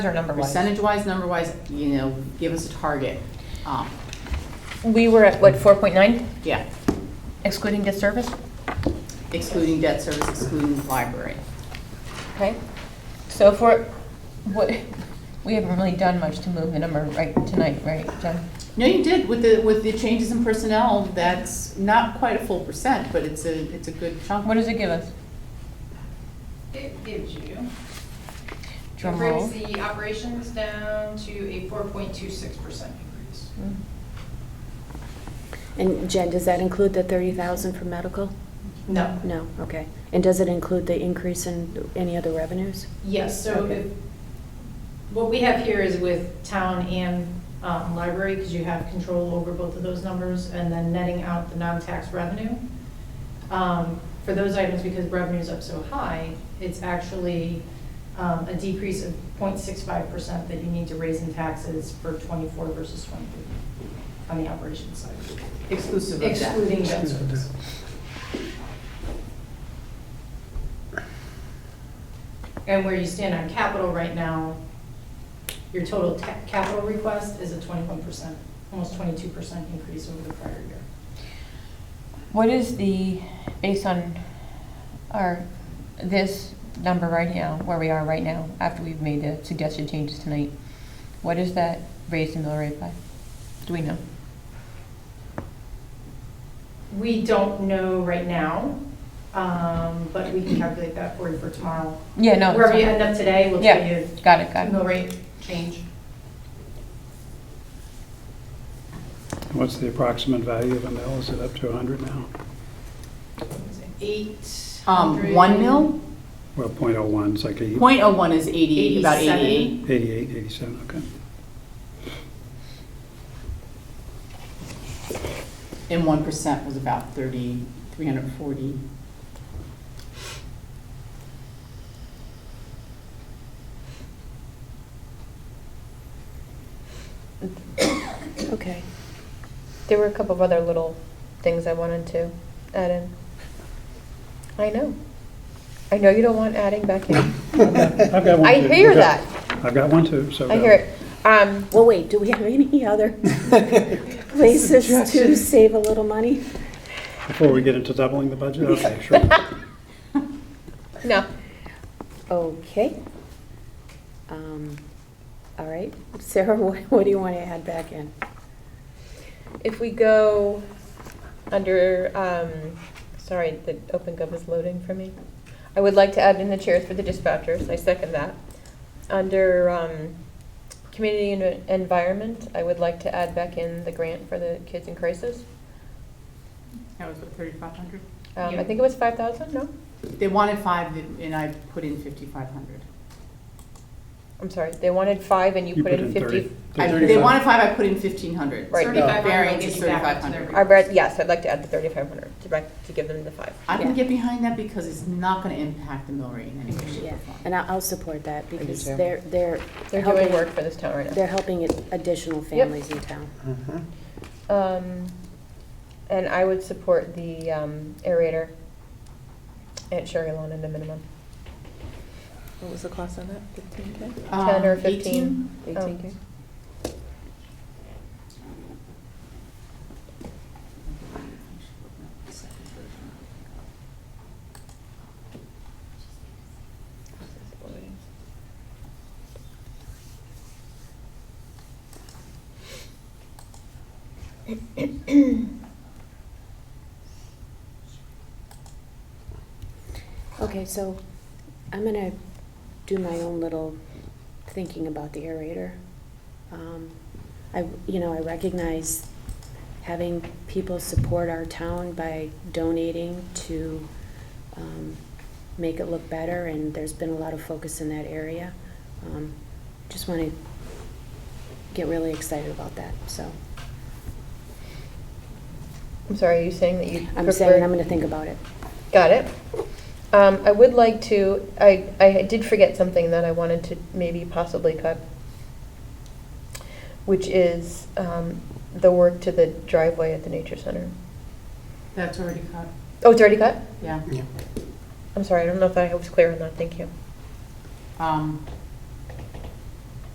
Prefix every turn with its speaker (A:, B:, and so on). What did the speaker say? A: Or number one?
B: Percentage-wise, number-wise, you know, give us a target. Um,
C: We were at, what, 4.9
B: Yeah,
C: excluding debt service?
B: excluding debt service, excluding library.
C: Okay. So if we're, what, we haven't really done much to move the number right tonight, right, John?
B: No, you did, with the, with the changes in personnel, that's not quite a full percent, but it's a, it's a good chunk.
C: What does it give us?
D: It gives you, it
C: Drum roll.
D: brings the operations down to a four point two six percent increase.
E: And Jen, does that include the 30,000 for medical?
D: No.
E: No, okay. And does it include the increase in any other revenues?
D: Yes, so
E: Okay.
D: if- what we have here is with town and um, library, because you have control over both of those numbers, and then netting out the non-tax revenue. Um, For those items, because revenue's up so high, it's actually um, a decrease of 0.65% that you need to raise in taxes for '24 versus '23 on the operations side,
B: Exclusive of debt.
D: excluding debt service. And where you stand on capital right now, your total ta- capital request is a 21%, almost 22% increase over the prior year.
C: What is the, based on our, this number right now, where we are right now, after we've made the suggested changes tonight, what is that raised in mill rate by? Do we know?
D: We don't know right now, um, but we can calculate that for you for tomorrow.
C: Yeah, no. it's
D: Wherever you
C: fine.
D: end up today, we'll tell
C: Yeah,
D: you
C: got it, got it.
D: mill rate change.
F: What's the approximate value of a mill? Is it up to 100 now?
D: Eight
B: Um, one mil,
F: Well, .01, it's like a-
B: point oh one is eighty, about
D: 87.
B: eighty-eight.
F: 88, 87, okay.
B: And one percent was about thirty, three hundred and forty.
E: Okay.
C: There were a couple of other little things I wanted to add in. I know. I know you don't want adding back in.
F: I've got one,
C: I
F: too.
C: hear
F: I've got-
C: that.
F: I've got one too, so.
C: I hear it. Um,
E: Well, wait, do we have any other places to save a little money?
F: Before we get into doubling the budget, okay, sure.
C: no.
E: Okay. Um, All right. Sarah, what what do you want to add back in?
C: If we go under, um, sorry, the OpenGov is loading for me. I would like to add in the chairs for the dispatchers. I second that. Under, um, community and environment, I would like to add back in the grant for the kids in crisis.
B: That was what, thirty-five hundred?
C: Um,
D: Yeah.
C: I think it was five thousand, no?
B: They wanted five, and I put in fifty-five hundred.
C: I'm sorry, they wanted five and you put in fifty.
F: 30,
B: They
F: 35.
B: wanted five, I put in fifteen hundred.
C: Right.
D: Thirty-five hundred
B: Variance
D: gets
B: is
D: you back up
B: thirty-five
D: to their.
B: hundred.
C: I read, yes, I'd like to add the thirty-five hundred to back, to give them the five.
B: I can
E: Yeah.
B: get behind that because it's not gonna impact the mill rate in any way, shape,
E: Yeah,
B: or form.
E: and I- I'll support that because
B: too.
E: they're, they're.
C: They're doing
E: helping-
C: work for this town right now.
E: They're helping additional families in town.
F: Mhm.
C: Um, and I would support the, um, aerator at Sherry Lawn in the minimum.
G: What was the cost on that, fifteen K?
C: Ten or
B: Um, 18?
C: fifteen. Um,
G: Eighteen K?
E: Okay, so I'm gonna do my own little thinking about the aerator. Um, I, you know, I recognize having people support our town by donating to um, make it look better, and there's been a lot of focus in that area. Um, Just want to get really excited about that, so
C: I'm sorry, are you saying that you
E: I'm saying
C: prefer?
E: I'm gonna think about it.
C: Got it. Um, I would like to, I, I did forget something that I wanted to maybe possibly cut, which is, um, the work to the driveway at the nature center.
B: That's already cut,
C: Oh, it's already cut?
B: yeah.
C: I'm sorry, I don't know if I was clear on that, thank you.
B: Um,